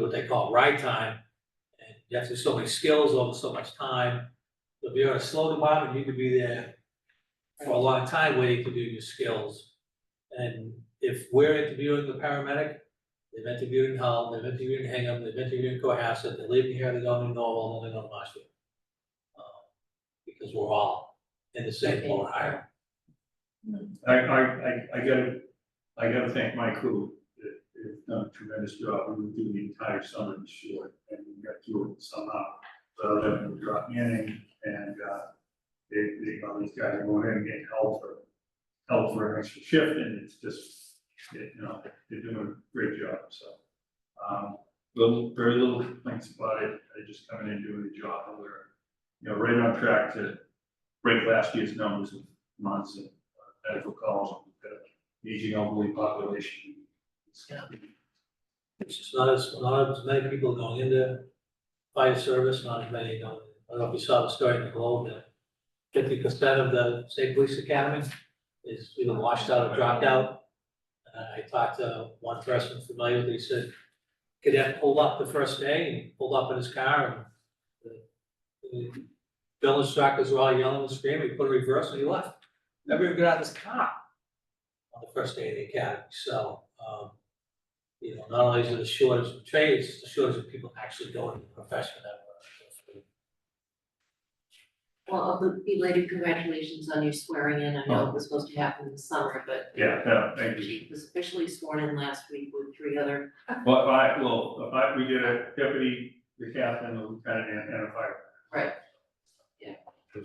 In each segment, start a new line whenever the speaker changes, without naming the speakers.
what they call ride time. And you have to so many skills over so much time. If you're in a slow department, you could be there for a long time waiting to do your skills. And if we're interviewing the paramedic, they've interviewed in Hull, they've interviewed in Hingham, they've interviewed in Cohasset, they're leaving here, they're going to Norwell, and they're going to Marshfield. Uh, Because we're all in the same boat, higher.
I, I, I, I gotta, I gotta thank my crew. They- They've done a tremendous job. We were doing the entire summer in short and we got through it somehow. So then we dropped in and, uh, they, they, all these guys are going in and getting help for, help for an extra shift and it's just, it- you know, they're doing a great job, so. Um, little, very little complaints about it. They just come in and doing the job and we're, you know, right on track to break last year's numbers of months and medical calls, we've got an aging elderly population.
It's just not as, not as many people going into fire service, not as many going, I don't know if you saw the story in the Globe, that fifty percent of the state police academy is either washed out or dropped out. And I talked to one person familiar with it, he said, cadet pulled up the first day, and pulled up in his car, and the- the bill instructors were all yelling and screaming, he put a reverse, and he left. Never even got out of his car on the first day of the academy, so, um, you know, not only is it a shortage of trades, it's a shortage of people actually going to the profession that we're.
Well, a belated congratulations on your swearing in. I know it was supposed to happen in the summer, but
Yeah, yeah, thank you.
she was officially sworn in last week with three other,
Well, if I, well, if I, we did a deputy, the captain, the lieutenant, and and a fire.
Right. Yeah.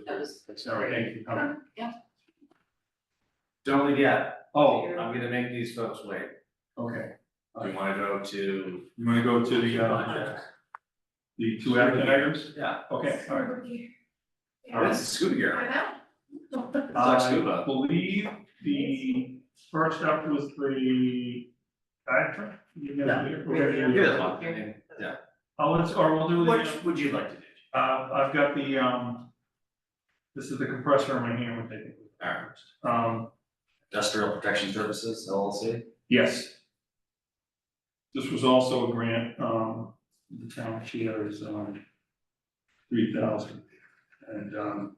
that was.
Sorry, thank you for coming.
Yeah,
Don't leave yet,
Oh,
I'm gonna make these folks wait,
okay.
we wanna go to,
You wanna go to the, uh, the two action items?
yeah,
Okay, all right. All
that's
right.
oh, scuba gear. It's like
I
scuba,
believe the first up was the, I, you know,
Yeah.
yeah, that's
okay.
fine. And- yeah.
Oh, let's, or we'll do the.
What would you like to do?
Uh, I've got the, um, this is the compressor in my hand, which I think,
Alright,
um,
industrial protection services, LLC,
yes. This was also a grant, um, the town share is, um, three thousand, and, um,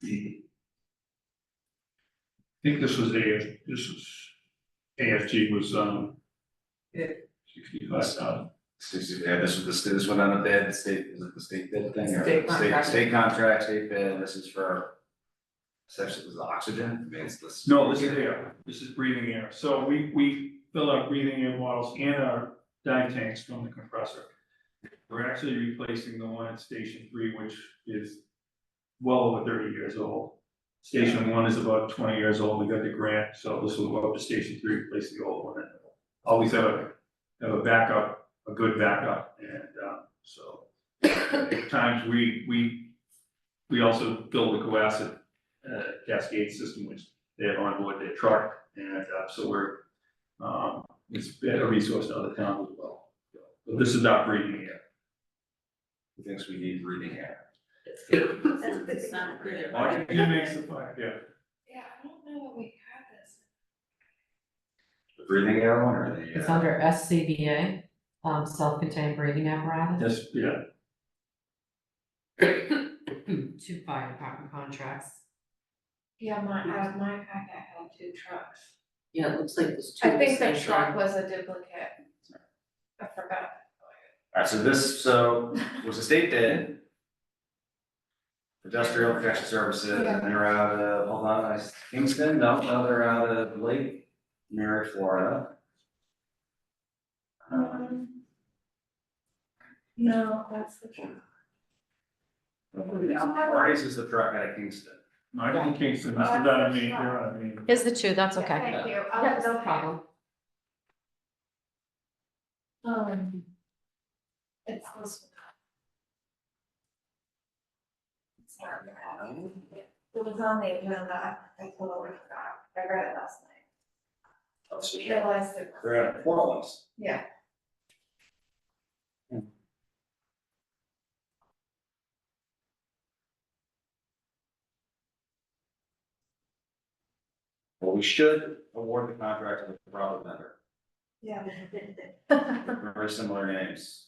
the I think this was AF, this was, AFG was, um, sixty-five thousand,
excuse me, yeah, this was the, this one on the bid, the state, is it the state bid thing? or
State contract.
State contract, state bid, this is for. Essentially, this is oxygen, I mean, it's this.
No, this is air, this is breathing air, so we, we fill our breathing air bottles and our dive tanks from the compressor. We're actually replacing the one at station three, which is well over thirty years old. Station one is about twenty years old, we got the grant, so this will go up to station three, replace the old one. Always have a, have a backup, a good backup, and, um, so. at Times we, we, we also build a coacid, uh, cascade system, which they have on board their truck, and, uh, so we're, um, it's been a resource to other towns as well. But this is not breeding yet.
He Thinks we need breathing air.
it's not clear.
Washington makes the fire, yeah.
Yeah, I don't know that we had this.
The breathing air one or the?
It's
uh,
under SCBA, um, self-contained breathing apparatus,
That's, yeah,
two fire department contracts.
Yeah, my, out of my packet had two trucks.
Yeah, it looks like there's two.
I think the
station.
truck was a duplicate. I forgot.
Alright, so this, so was a state bid. Industrial Protection Services, and they're out of, hold on, I, Kingston, no, no, they're out of Lake Mary, Florida. Um,
Um, No, that's the truck.
Marty's is the truck out of Kingston.
no, I don't think so, this is not a main, they're not a main.
Is the two, that's okay.
Thank you, I'll
That's
go
no
ahead.
problem.
Um. It's this. one. It's not bad. It was on the agenda, I totally forgot, I read it last night,
Oh, so
realized it. was-
They're out of Portland. Hmm.
Yeah,
Well, we should award the contract to the proper vendor,
yeah.
very similar names.